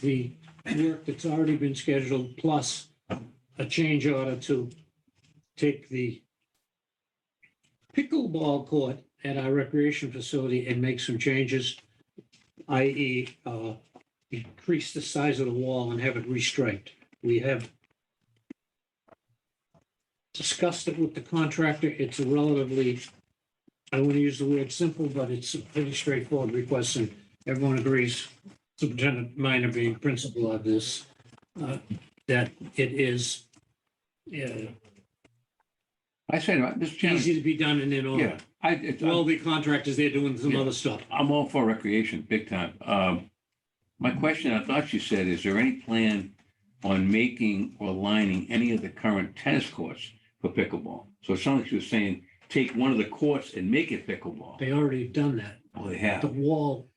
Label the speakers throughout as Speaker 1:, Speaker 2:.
Speaker 1: the work that's already been scheduled plus a change order to take the pickleball court at our recreation facility and make some changes, i.e., uh, increase the size of the wall and have it restriped. We have discussed it with the contractor. It's a relatively, I want to use the word simple, but it's a pretty straightforward request, and everyone agrees, Superintendent Minor being principal of this, uh, that it is uh,
Speaker 2: I say, that, Mr. Chairman,
Speaker 1: easy to be done and in order.
Speaker 2: yeah, I, it's,
Speaker 1: Well, the contractors, they're doing some
Speaker 2: Yeah.
Speaker 1: other stuff.
Speaker 2: I'm all for recreation, big time. Um, my question, I thought you said, is there any plan on making or lining any of the current tennis courts for pickleball? So it sounds like you were saying, take one of the courts and make it pickleball.
Speaker 1: They already have done that.
Speaker 2: Oh, they
Speaker 1: The
Speaker 2: have.
Speaker 1: wall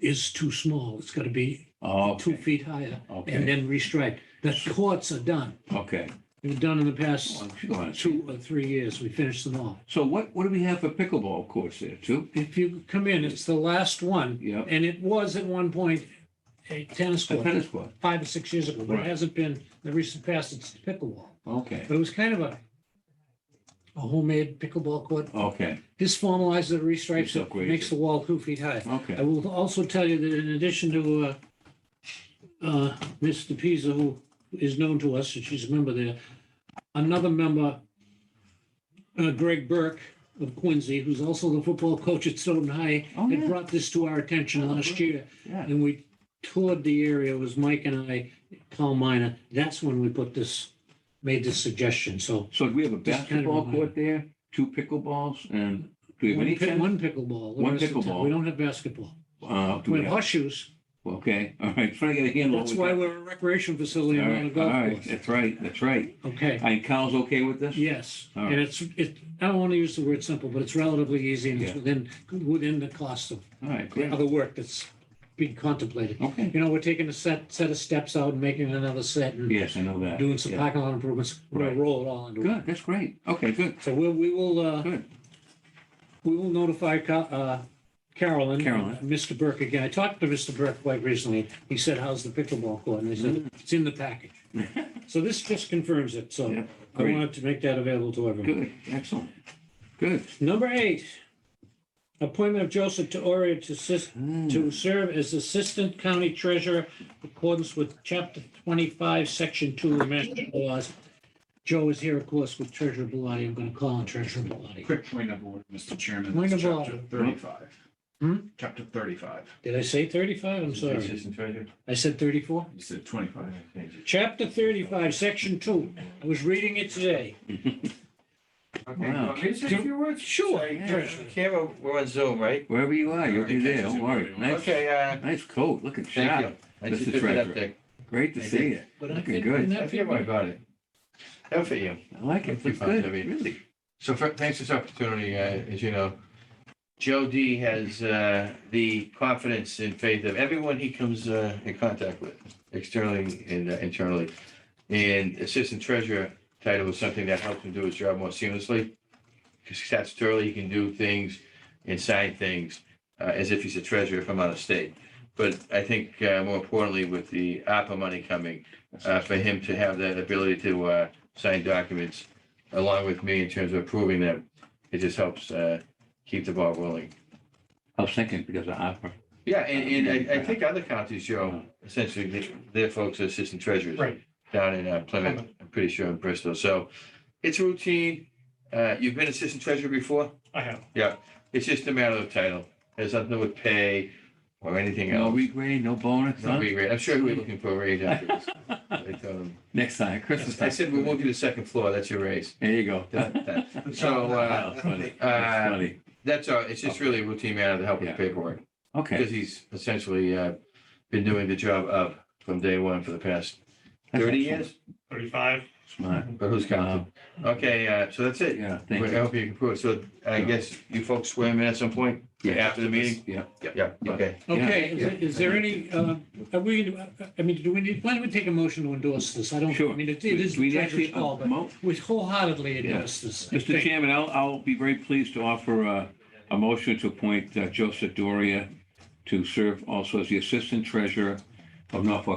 Speaker 1: is too small. It's got to be
Speaker 2: Oh,
Speaker 1: two
Speaker 2: okay,
Speaker 1: feet higher and
Speaker 2: okay,
Speaker 1: then restriped. The courts are done.
Speaker 2: okay.
Speaker 1: They were done in the past
Speaker 2: Well, go on.
Speaker 1: two or three years. We finished them all.
Speaker 2: So what, what do we have for pickleball courts there, too?
Speaker 1: If you come in, it's the last one.
Speaker 2: Yeah,
Speaker 1: And it was at one point a tennis
Speaker 2: a
Speaker 1: court,
Speaker 2: tennis court,
Speaker 1: five or six years ago, but it
Speaker 2: Right.
Speaker 1: hasn't been, in the recent past, it's pickleball.
Speaker 2: okay,
Speaker 1: But it was kind of a a homemade pickleball court.
Speaker 2: okay,
Speaker 1: This formalizes it, restripes
Speaker 2: It's
Speaker 1: it,
Speaker 2: upgraded.
Speaker 1: makes the wall two feet high. I
Speaker 2: okay.
Speaker 1: will also tell you that in addition to uh, uh, Ms. DePisa, who is known to us, and she's a member there, another member, uh, Greg Burke of Quincy, who's also the football coach at Stoughton High,
Speaker 2: Oh,
Speaker 1: had
Speaker 2: yeah,
Speaker 1: brought this to our attention
Speaker 2: Oh,
Speaker 1: last
Speaker 2: good.
Speaker 1: year,
Speaker 2: yeah,
Speaker 1: and we toured the area, it was Mike and I, Paul Minor. That's when we put this, made this suggestion, so.
Speaker 2: so do we have a
Speaker 1: Just kind of
Speaker 2: basketball
Speaker 1: remind-
Speaker 2: court there, two pickleballs, and do we have
Speaker 1: one
Speaker 2: any
Speaker 1: pi-
Speaker 2: tennis?
Speaker 1: One pickleball. the
Speaker 2: One
Speaker 1: rest of the time.
Speaker 2: pickleball.
Speaker 1: We don't have basketball.
Speaker 2: Uh, do
Speaker 1: We
Speaker 2: we
Speaker 1: have
Speaker 2: have,
Speaker 1: horseshoes,
Speaker 2: okay, all right, trying to get a handle. on
Speaker 1: that's
Speaker 2: what
Speaker 1: why
Speaker 2: we
Speaker 1: we're a recreation facility
Speaker 2: got.
Speaker 1: and
Speaker 2: All
Speaker 1: not a
Speaker 2: right, all
Speaker 1: golf
Speaker 2: right,
Speaker 1: course.
Speaker 2: that's right, that's right.
Speaker 1: Okay,
Speaker 2: And Kyle's okay with this?
Speaker 1: yes,
Speaker 2: All
Speaker 1: and
Speaker 2: right.
Speaker 1: it's, it, I don't want to use the word simple, but it's relatively easy and it's
Speaker 2: Yeah.
Speaker 1: within, within the cost of
Speaker 2: All right,
Speaker 1: the
Speaker 2: great,
Speaker 1: other work that's being contemplated.
Speaker 2: okay,
Speaker 1: You know, we're taking a set, set of steps out and making another set and
Speaker 2: yes, I know that.
Speaker 1: doing some
Speaker 2: Yeah.
Speaker 1: parking lot improvements. We're gonna
Speaker 2: Right.
Speaker 1: roll it all into one.
Speaker 2: Good, that's great, okay, good,
Speaker 1: So we'll, we will, uh,
Speaker 2: good,
Speaker 1: we will notify Ca- uh, Carolyn.
Speaker 2: Carolyn.
Speaker 1: uh, Mr. Burke again. I talked to Mr. Burke quite recently. He said, how's the pickleball court? And I
Speaker 2: Mm-hmm.
Speaker 1: said, it's in the package. So this just confirms it. So
Speaker 2: Yeah,
Speaker 1: I
Speaker 2: great.
Speaker 1: wanted to make that available to everyone.
Speaker 2: good, excellent, good.
Speaker 1: Number eight, appointment of Joseph Teoria to assist,
Speaker 2: Mm.
Speaker 1: to serve as Assistant County Treasurer in accordance with Chapter 25, Section 2 of Mass Laws. Joe is here, of course, with Treasurer Bellotti. I'm going to call on Treasurer Bellotti.
Speaker 3: Quick point of order, Mr. Chairman.
Speaker 1: Point
Speaker 3: It's
Speaker 1: of
Speaker 3: chapter
Speaker 1: order.
Speaker 3: Thirty-five.
Speaker 1: Hmm?
Speaker 3: Chapter thirty-five.
Speaker 1: Did I say 35? I'm sorry.
Speaker 4: Assistant Treasurer?
Speaker 1: I said 34?
Speaker 3: You said twenty-five.
Speaker 1: Chapter 35, Section 2. I was reading it today.
Speaker 4: Okay, you want me to say a few words?
Speaker 1: Sure,
Speaker 4: Sorry,
Speaker 1: Treasurer.
Speaker 4: Camera, we're on Zoom, right?
Speaker 2: Wherever you are, you'll be there, don't worry. Nice,
Speaker 4: Okay, uh,
Speaker 2: nice coat, looking
Speaker 4: thank you.
Speaker 2: sharp,
Speaker 4: I
Speaker 2: Mr.
Speaker 4: just did that
Speaker 2: Treasurer.
Speaker 4: update.
Speaker 2: great to
Speaker 4: Thank
Speaker 2: see
Speaker 4: you.
Speaker 2: you.
Speaker 1: But I
Speaker 2: Looking
Speaker 1: think
Speaker 2: good.
Speaker 1: in
Speaker 4: I
Speaker 1: that
Speaker 4: feel my body. How for you?
Speaker 2: I like it, it's good, really.
Speaker 4: So fir- thanks for this opportunity, uh, as you know. Joe D has uh, the confidence and faith of everyone he comes uh, in contact with, externally and uh, internally. And assistant treasurer title is something that helps him do his job more seamlessly. Because statutorily, he can do things and sign things uh, as if he's a treasurer from out of state. But I think uh, more importantly, with the ARPA money coming, uh, for him to have that ability to uh, sign documents along with me in terms of approving them, it just helps uh, keep the ball rolling.
Speaker 2: I was thinking Oh, because of opera.
Speaker 4: Yeah, and, and I, I think other counties, Joe, essentially, th- their folks are assistant treasurers.
Speaker 3: Right.
Speaker 4: Down in uh, Plymouth, I'm pretty sure in Bristol. So it's routine. Uh, You've been assistant treasurer before?
Speaker 3: I have.
Speaker 4: It's just a matter of title. There's nothing with pay or anything
Speaker 2: No
Speaker 4: else.
Speaker 2: regrade, no bonus,
Speaker 4: No
Speaker 2: huh?
Speaker 4: re- I'm sure he'll be looking for a raise after this. I told him.
Speaker 2: Next time, Christmas
Speaker 4: I
Speaker 2: time.
Speaker 4: said, we won't do the second floor. That's your raise.
Speaker 2: There you go.
Speaker 4: That- that- So, uh,
Speaker 2: Wow, that's funny.
Speaker 4: uh,
Speaker 2: That's funny.
Speaker 4: That's all. It's just really a routine matter to help with the
Speaker 2: Yeah.
Speaker 4: paperwork
Speaker 2: Okay.
Speaker 4: because he's essentially uh, been doing the job of from day one for the past
Speaker 2: That's
Speaker 4: thirty
Speaker 2: excellent.
Speaker 4: years.
Speaker 3: Thirty-five.
Speaker 2: Smart. Um,
Speaker 4: But who's counting? Okay, uh, so that's it.
Speaker 2: Yeah,
Speaker 4: I
Speaker 2: thank you.
Speaker 4: hope you can prove it. So I guess you folks swear me at some point
Speaker 2: Yeah.
Speaker 4: after the meeting.
Speaker 2: Yeah.
Speaker 4: Yeah. Okay.
Speaker 1: Okay, is there- is there any, uh, are we, uh, I mean, do we need, why don't we take a motion to endorse this? I don't, I
Speaker 2: Sure.
Speaker 1: mean, it it is
Speaker 2: We-
Speaker 1: the
Speaker 2: we actually- uh,
Speaker 1: treasurer's call, but
Speaker 2: Mo-
Speaker 1: we wholeheartedly endorse this. I
Speaker 2: Mr.
Speaker 1: think.
Speaker 2: Chairman, I'll, I'll be very pleased to offer a, a uh, motion to appoint uh, Joseph Doria to serve also as the Assistant Treasurer of Norfolk